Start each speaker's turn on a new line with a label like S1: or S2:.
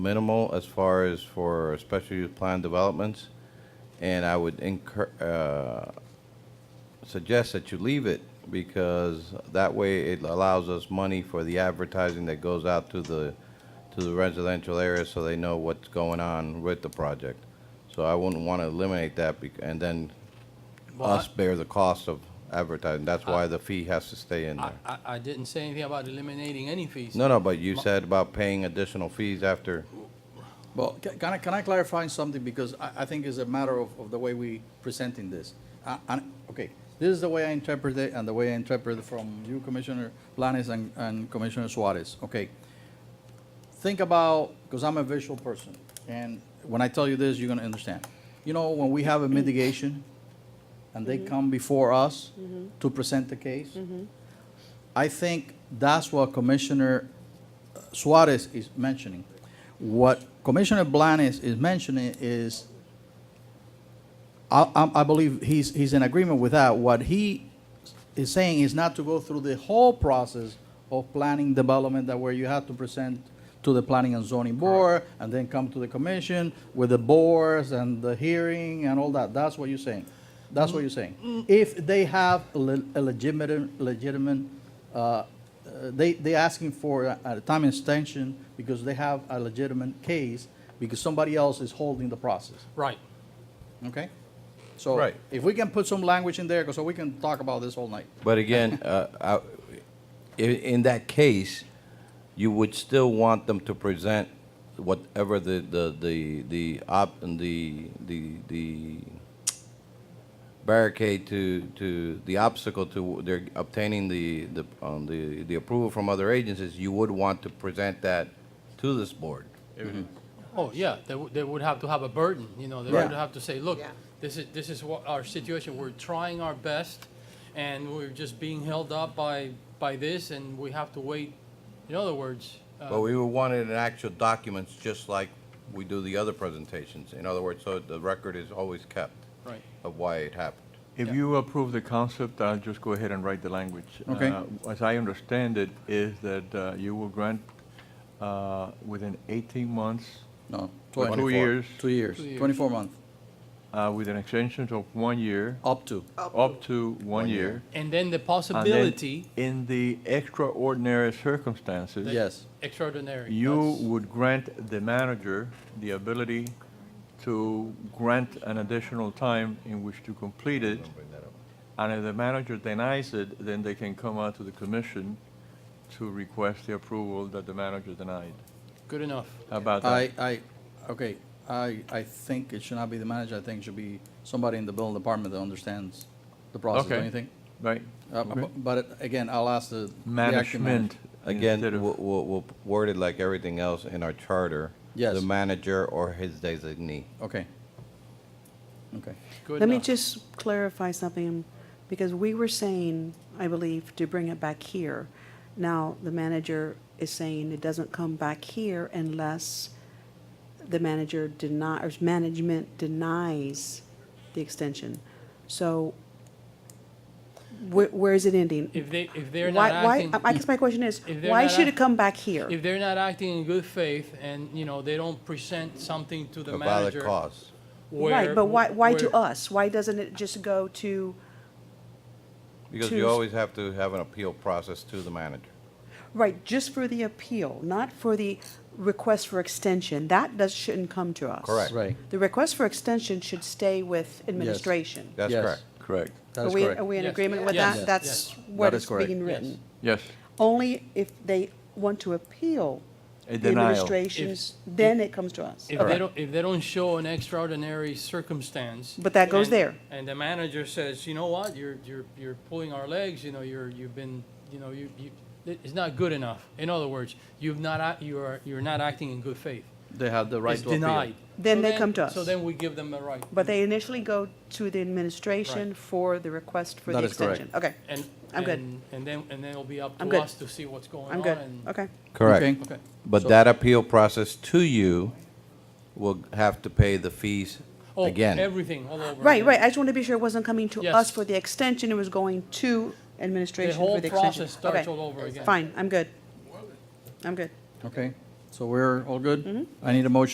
S1: minimal as far as for special use plan developments, and I would incur, uh, suggest that you leave it, because that way it allows us money for the advertising that goes out to the, to the residential area, so they know what's going on with the project. So I wouldn't want to eliminate that, bec- and then
S2: Well, I-
S1: us bear the cost of advertising, that's why the fee has to stay in
S2: I,
S1: there.
S2: I, I didn't say anything about eliminating any fees.
S1: No, no, but you said about paying additional fees after,
S3: Well, ca- can I, can I clarify something, because I, I think it's a matter of, of the way we presenting this. I- I- okay, this is the way I interpret it, and the way I interpret it from you, Commissioner Blanes and, and Commissioner Suarez, okay? Think about, because I'm a visual person, and when I tell you this, you're gonna understand. You know, when we have a mitigation, and they come before us to present the case, I think that's what Commissioner Suarez is mentioning. What Commissioner Blanes is mentioning is, I, I, I believe he's, he's in agreement with that. What he is saying is not to go through the whole process of planning development that where you have to present to the planning and zoning board and then come to the commission with the boards and the hearing and all that. That's what you're saying. That's what you're saying. If they have a le- a legitimate, legitimate, uh, uh, they, they asking for a, a time extension because they have a legitimate case because somebody else is holding the process.
S2: Right.
S3: Okay? So
S1: Right.
S3: if we can put some language in there, 'cause so we can talk about this all night.
S1: but again, uh, I- i- in that case, you would still want them to present whatever the, the, the, the op, and the, the, the barricade to, to, the obstacle to their obtaining the, the, um, the, the approval from other agencies, you would want to present that to this board.
S2: Oh, yeah, they, would- they would have to have a burden, you know, they
S3: Yeah.
S2: would have to say, look,
S4: Yeah.
S2: this is, this is what our situation, we're trying our best, and we're just being held up by, by this, and we have to wait, in other words,
S1: But
S2: uh,
S1: we would want it in actual documents, just like we do the other presentations. In other words, so the record is always kept
S2: right.
S1: of why it happened.
S5: If you approve the concept, I'll just go ahead and write the language.
S3: Okay.
S5: Uh, As I understand it, is that uh, you will grant uh, within 18 months,
S3: No,
S5: or
S3: twenty,
S5: two years,
S3: two years,
S2: Two years.
S3: twenty-four months,
S5: uh, with an extension of one year,
S3: up to.
S5: up to one year.
S2: And then the
S5: and then
S2: possibility.
S5: In the extraordinary circumstances.
S2: that-
S3: Yes.
S2: Extraordinary.
S5: You
S2: that's-
S5: would grant the manager the ability to grant an additional time in which to complete it. And if the manager denies it, then they can come out to the commission to request the approval that the manager denied.
S2: Good enough.
S5: How about that?
S3: I, I, okay, I, I think it should not be the manager, I think it should be somebody in the building department that understands the process,
S5: Okay.
S3: don't you think?
S5: Right?
S3: Uh,
S5: Okay.
S3: bu- But again, I'll ask the. the acting manager.
S5: Management.
S1: Again,
S5: instead of-
S1: we'll, we'll we'll word it like everything else in our charter.
S3: Yes.
S1: The manager or his designee.
S3: Okay. Okay.
S2: Good
S4: Let me
S2: enough.
S4: just clarify something, because we were saying, I believe, to bring it back here. Now, the manager is saying it doesn't come back here unless the manager denies, or management denies the extension. So where, where is it ending?
S2: If they, if they're not
S4: Why, why,
S2: acting.
S4: I guess my question is,
S2: If they're
S4: why
S2: not
S4: should
S2: act-
S4: it come back here?
S2: If they're not acting in good faith and, you know, they don't present something to the
S1: A valid
S2: manager.
S1: cause.
S4: Right,
S2: where-
S4: but why, why to
S2: where-
S4: us? Why doesn't it just go to?
S1: Because you
S4: Choose-
S1: always have to have an appeal process to the manager.
S4: Right, just for the appeal, not for the request for extension. That does, shouldn't come to us.
S1: Correct.
S3: Right.
S4: The request for extension should stay with administration.
S1: That's
S3: Yes.
S1: correct.
S5: Correct.
S3: That
S4: Are
S3: is
S4: we-
S3: correct.
S4: Are we in
S2: Yes.
S4: agreement with
S2: Yes.
S4: that?
S2: Yes.
S4: That's what
S3: That is
S4: is
S3: correct.
S4: being written.
S5: Yes,
S4: Only if they want to appeal
S5: A
S4: the
S5: denial.
S4: administration's, then it comes to us.
S2: If they don't, if they don't show an extraordinary circumstance.
S4: But that goes
S2: and-
S4: there.
S2: And the manager says, you know what, you're, you're, you're pulling our legs, you know, you're, you've been, you know, you, you, it- it's not good enough. In other words, you've not, act- you are, you're not acting in good faith.
S3: They have the right
S2: It's
S3: to appeal.
S2: denied.
S4: Then
S2: So
S4: they come to
S2: So
S4: us.
S2: then we give them a right.
S4: But they initially go to the administration for the request for the
S3: That is correct.
S4: extension. Okay,
S2: And.
S4: I'm good.
S2: and- And then, and then it'll be up
S4: I'm
S2: to
S4: good.
S2: us to see what's going on.
S4: I'm good.
S2: and-
S4: Okay.
S3: Okay.
S1: Correct.
S2: Okay.
S1: But
S3: So-
S1: that appeal process to you will have to pay the fees
S2: Oh,
S1: again.
S2: Everything all over.
S4: Right,
S2: again.
S4: right. I just want to be sure it wasn't coming to
S2: Yes.
S4: us for the extension. It was going to administration
S2: whole
S4: for the extension.
S2: process starts
S4: Okay.
S2: all over again.
S4: Fine, I'm good. I'm good.
S3: Okay,
S2: Mm-hmm.
S3: So we're all good? I need a motion